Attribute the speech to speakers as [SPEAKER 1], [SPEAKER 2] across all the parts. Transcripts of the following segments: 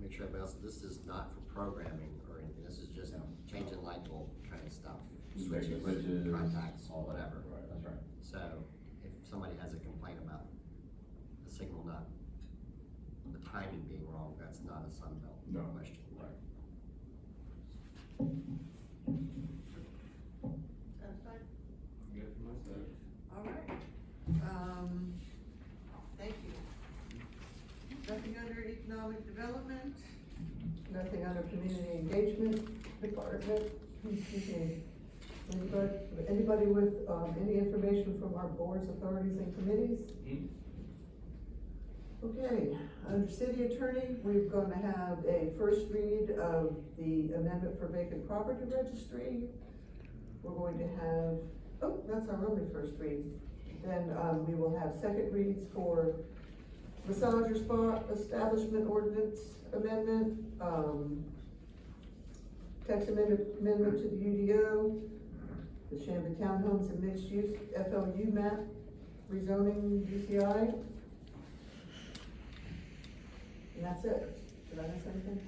[SPEAKER 1] or everybody else, this is not for programming or anything, this is just
[SPEAKER 2] No.
[SPEAKER 1] changing light bulb kind of stuff.
[SPEAKER 2] Switches, switches,
[SPEAKER 1] Contacts,
[SPEAKER 2] all that.
[SPEAKER 1] whatever.
[SPEAKER 2] Right, that's right.
[SPEAKER 1] So if somebody has a complaint about the signal not, the timing being wrong, that's not a Sunbelt
[SPEAKER 2] No.
[SPEAKER 1] question.
[SPEAKER 2] Right.
[SPEAKER 3] Satisfied?
[SPEAKER 4] Good for myself.
[SPEAKER 3] All right. Um, thank you. Nothing under economic development?
[SPEAKER 5] Nothing out of community engagement department, excuse me. Anybody, anybody with, um, any information from our boards, authorities and committees?
[SPEAKER 4] Hmm?
[SPEAKER 5] Okay, under city attorney, we're gonna have a first read of the amendment for vacant property registry. We're going to have, oh, that's our only first read. Then, um, we will have second reads for massage or spa establishment ordinance amendment, um, text amendment, amendment to the UDO, the Shambo Townhomes and Mixed Use FLU map, rezoning DCI. And that's it. Did I miss anything?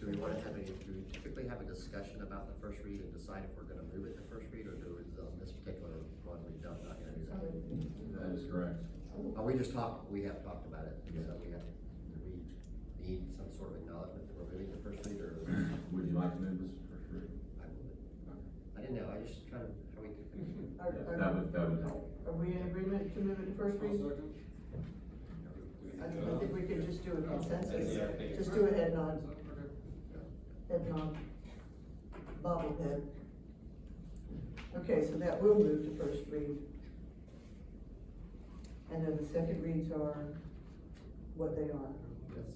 [SPEAKER 1] Do we wanna have a, do we typically have a discussion about the first read and decide if we're gonna move it to first read, or do we, on this particular one, we don't, not gonna do that?
[SPEAKER 2] That is correct.
[SPEAKER 1] Oh, we just talked, we have talked about it, so we have, do we need some sort of acknowledgement that we're moving to first read, or?
[SPEAKER 2] Would you like to move this for free?
[SPEAKER 1] I would. I didn't know, I just kind of, how we,
[SPEAKER 5] Are,
[SPEAKER 2] That
[SPEAKER 5] are,
[SPEAKER 2] would, that would help.
[SPEAKER 5] are we in agreement to move it to first read? I don't I think we could just do a consensus,
[SPEAKER 4] Yeah, I think-
[SPEAKER 5] just do a head nod,
[SPEAKER 4] Okay.
[SPEAKER 5] head nod, bobblehead. Okay, so that will move to first read. And then the second reads are what they are.
[SPEAKER 1] yes.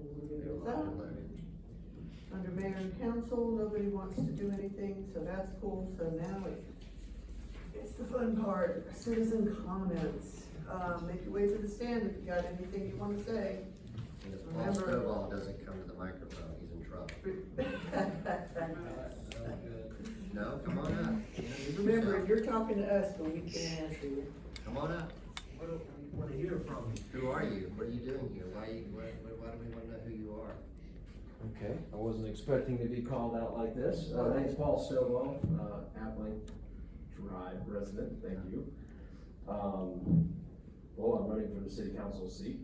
[SPEAKER 5] And we're gonna go with that. Under mayor and council, nobody wants to do anything, so that's cool, so now it's, it's the fun part, citizen comments. Uh, make your way to the stand if you got anything you wanna say.
[SPEAKER 1] And if Paul Stovall doesn't come to the microphone, he's in trouble. No, come on up.
[SPEAKER 5] Remember, you're talking to us, but we can't answer you.
[SPEAKER 1] Come on up.
[SPEAKER 6] What do you wanna hear from me?
[SPEAKER 1] Who are you? What are you doing here? Why you, why, why- why do we wanna know who you are?
[SPEAKER 6] Okay, I wasn't expecting to be called out like this. Uh, my name's Paul Stovall, uh, Appling Drive resident, thank you. Um, well, I'm running for the city council seat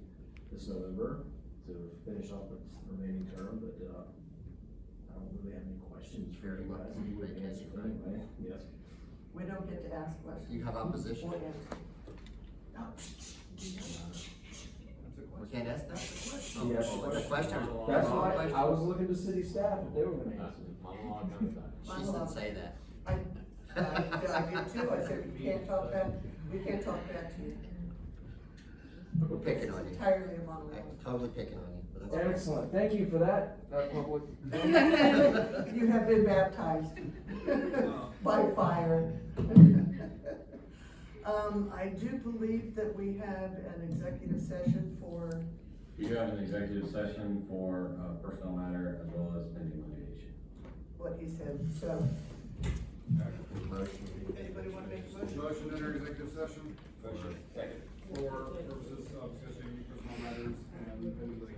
[SPEAKER 6] this November to finish off the remaining term, but, uh, I don't really have any questions for
[SPEAKER 1] Very
[SPEAKER 6] you guys.
[SPEAKER 1] lucky you
[SPEAKER 6] would
[SPEAKER 1] make it,
[SPEAKER 6] answer
[SPEAKER 1] right?
[SPEAKER 6] anyway. Yes.
[SPEAKER 5] We don't get to ask questions.
[SPEAKER 1] You have opposition?
[SPEAKER 5] Or answer.
[SPEAKER 1] We can't ask that question. Oh,
[SPEAKER 6] Yes.
[SPEAKER 1] oh, it's a question.
[SPEAKER 6] That's
[SPEAKER 1] It's a
[SPEAKER 6] why
[SPEAKER 1] question.
[SPEAKER 6] I was looking to city staff if they were gonna answer.
[SPEAKER 1] She didn't say that.
[SPEAKER 5] Oh, I, I, I did too, I said, we can't talk back, we can't talk back to you.
[SPEAKER 1] We're picking on
[SPEAKER 5] It's
[SPEAKER 1] you.
[SPEAKER 5] Entirely a
[SPEAKER 1] I'm
[SPEAKER 5] monologue.
[SPEAKER 1] totally picking on you, but that's.
[SPEAKER 6] Excellent, thank you for that, that public.
[SPEAKER 5] You have been baptized by fire. Um, I do believe that we have an executive session for,
[SPEAKER 2] You do have an executive session for uh, personnel matter as well as pending litigation.
[SPEAKER 5] what he said, so.
[SPEAKER 1] Motion.
[SPEAKER 3] Anybody wanna make a motion?
[SPEAKER 7] Motion to enter executive session? Motion. For purposes of discussing personal matters and pending litigation.